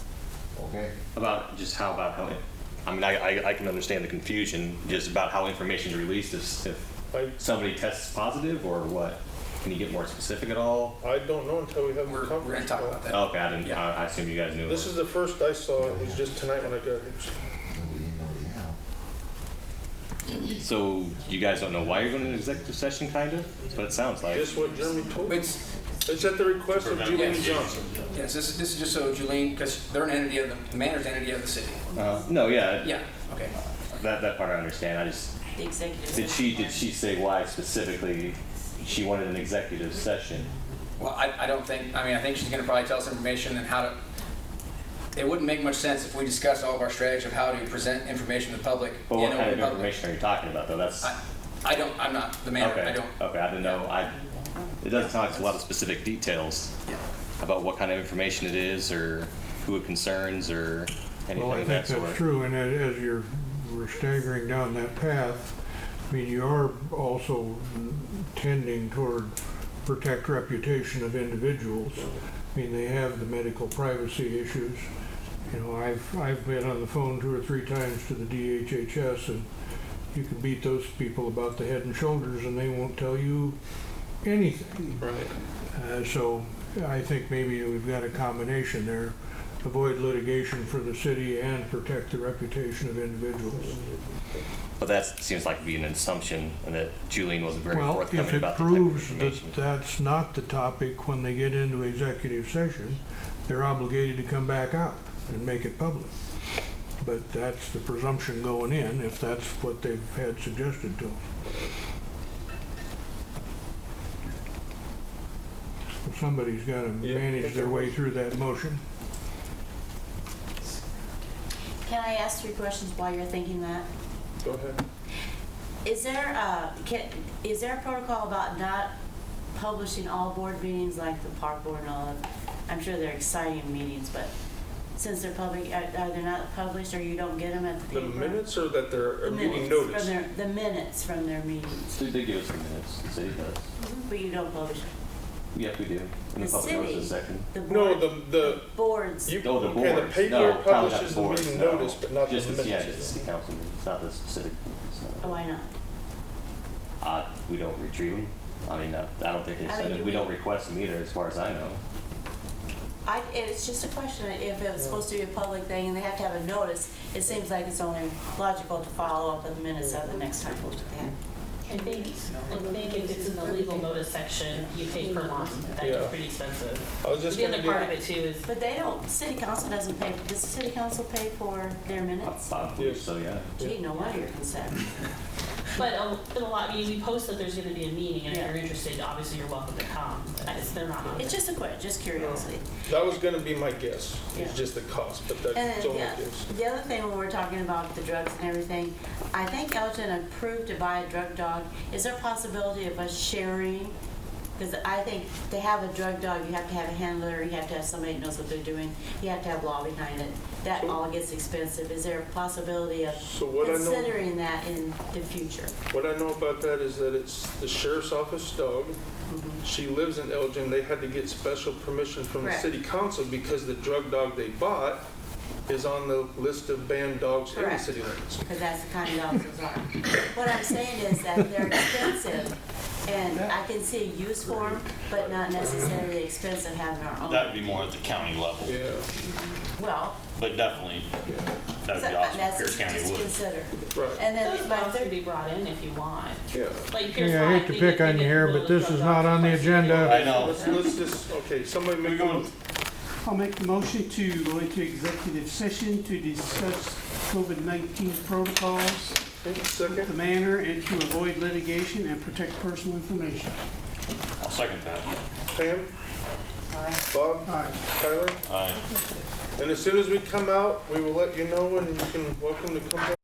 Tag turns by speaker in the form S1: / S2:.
S1: okay?
S2: About just how about how, I mean, I, I, I can understand the confusion just about how information is released if,
S3: I-
S2: if somebody tests positive or what. Can you get more specific at all?
S3: I don't know until we have
S4: We're,
S3: the
S4: we're gonna
S3: conference
S4: talk
S3: call.
S4: about that.
S2: Okay, I didn't, I, I assume you guys knew.
S3: This is the first I saw, it was just tonight when I got here.
S1: Nobody in, nobody out.
S2: So you guys don't know why you're going to an executive session, kind of? That's what it sounds like.
S3: Just what Jeremy told me.
S4: It's,
S3: It's at the request of Julian Johnson.
S4: yes, this is, this is just so Julene, because they're an entity of, the the mayor's an entity of the city.
S2: Uh, no, yeah,
S4: Yeah, okay.
S2: That, that part I understand. I just,
S5: The executive.
S2: did she, did she say why specifically she wanted an executive session?
S4: Well, I, I don't think, I mean, I think she's gonna probably tell us information and how to, it wouldn't make much sense if we discussed all of our strategy of how to present information to the public.
S2: But
S4: in
S2: what kind of
S4: open public.
S2: information are you talking about, though? That's,
S4: I, I don't, I'm not the mayor, I
S2: okay,
S4: don't.
S2: okay, I didn't know, I, it doesn't sound like there's a lot of specific details about what kind of information it is, or who it concerns, or anything
S6: Well, I
S2: of
S6: think
S2: that
S6: that's
S2: sort.
S6: true, and as, as you're, we're staggering down that path, I mean, you are also tending toward protect reputation of individuals. I mean, they have the medical privacy issues. You know, I've, I've been on the phone two or three times to the DHHS, and you can beat those people about the head and shoulders, and they won't tell you anything.
S3: Right.
S6: Uh, So I think maybe we've got a combination there. Avoid litigation for the city and protect the reputation of individuals.
S2: But that seems like to be an assumption, and that Julian wasn't very
S6: Well, if
S2: forthcoming
S6: it
S2: about the type of
S6: proves that
S2: information.
S6: that's not the topic when they get into executive session, they're obligated to come back out and make it public. But that's the presumption going in, if that's what they've had suggested to them. Somebody's got to
S3: Yeah.
S6: manage their way through that motion.
S5: Can I ask three questions while you're thinking that?
S3: Go ahead.
S5: Is there a, can, is there a protocol about not publishing all board meetings like the park board and all of? I'm sure they're exciting meetings, but since they're public, are, are they not published or you don't get them at the
S3: The
S5: paper?
S3: minutes or that they're
S5: The
S3: a meeting
S5: minutes from
S3: notice?
S5: their- The minutes from their meetings,
S2: They they give us some minutes, the city does.
S5: but you don't publish them.
S2: Yeah, we do. And
S5: The
S2: the public knows
S5: city-
S2: the second.
S5: The
S3: No,
S5: board,
S3: the, the,
S5: boards,
S3: you,
S2: Oh, the
S3: okay, the
S2: boards.
S3: paper
S2: No, town
S3: publishes the
S2: boards,
S3: meeting
S2: no.
S3: notice, but not the
S2: Just as- Yeah, just
S3: minutes.
S2: the council, it's not the specific. it's not-
S5: oh, why not?
S2: Uh, we don't retrieve them. I mean, uh, I don't think they
S5: I
S2: said
S5: mean,
S2: it.
S5: you
S2: We don't
S5: would-
S2: request them either, as far as I know.
S5: I, it's just a question, if it was supposed to be a public thing and they have to have a notice, it seems like it's only logical to follow up with the minutes of the next time.
S7: I think, I think if it's in the legal notice section, you pay per month,
S3: Yeah.
S7: that's pretty expensive.
S3: I was just
S7: The
S3: gonna
S7: other
S3: do,
S7: part of it too is,
S5: But they don't, city council doesn't pay, does the city council pay for their minutes?
S2: I believe
S3: Yes.
S2: so, yeah.
S5: Gee, no wonder you're concerned.
S7: but a in a lot, I mean, we post that there's gonna be a meeting, and if
S5: Yeah.
S7: you're interested, obviously you're welcome to come, but it's- they're not on
S5: It's just a question, just curiosity.
S3: that was gonna be my guess,
S5: Yeah.
S3: it's just the cost, but
S5: And
S3: that's
S5: then,
S3: only
S5: yeah,
S3: guess.
S5: the other thing when we're talking about the drugs and everything, I think Elton approved to buy a drug dog. Is there a possibility of us sharing? Because I think to have a drug dog, you have to have a handler, you have to have somebody that knows what they're doing, you have to have law behind it. That all gets expensive. Is there a possibility of
S3: So what I know.
S5: considering that in the future?
S3: What I know about that is that it's the sheriff's office dog. She lives in Elgin. They had to get special permission from the
S5: Correct.
S3: city council because the drug dog they bought is on the list of banned dogs in the
S5: Correct.
S3: city limits.
S5: because that's the kind of dogs those are. What I'm saying is that they're expensive, and I can see a use for them, but not necessarily expensive having our
S8: That
S5: own.
S8: would be more at the county level,
S3: Yeah,
S5: Well,
S8: but definitely, that would be awesome if
S5: that's
S8: Pierce County
S5: just
S8: would.
S5: consider.
S3: right,
S5: And
S7: Those
S5: then, but
S7: dogs
S5: they're
S7: can be brought in if you want,
S3: yeah.
S7: like Pierce
S6: Yeah, I hate to
S7: High, they
S6: pick on
S7: get- they
S6: you
S7: get
S6: here,
S7: rid
S6: but
S7: of the
S6: this is
S7: drug
S6: not on the
S7: dogs twice a year.
S6: agenda.
S8: I
S2: Oh.
S8: know,
S3: Let's, let's just, okay, somebody
S8: We're
S3: make a
S8: going-
S3: motion.
S9: I'll make the motion to go into executive session to discuss COVID-19 protocols, the
S3: Second,
S9: manner, and to avoid litigation and protect personal information.
S8: I'll second that.
S3: Pam?
S9: All
S3: Bob?
S9: right.
S3: Tyler?
S8: Aye.
S3: And as soon as we come out, we will let you know and you can, welcome to come back.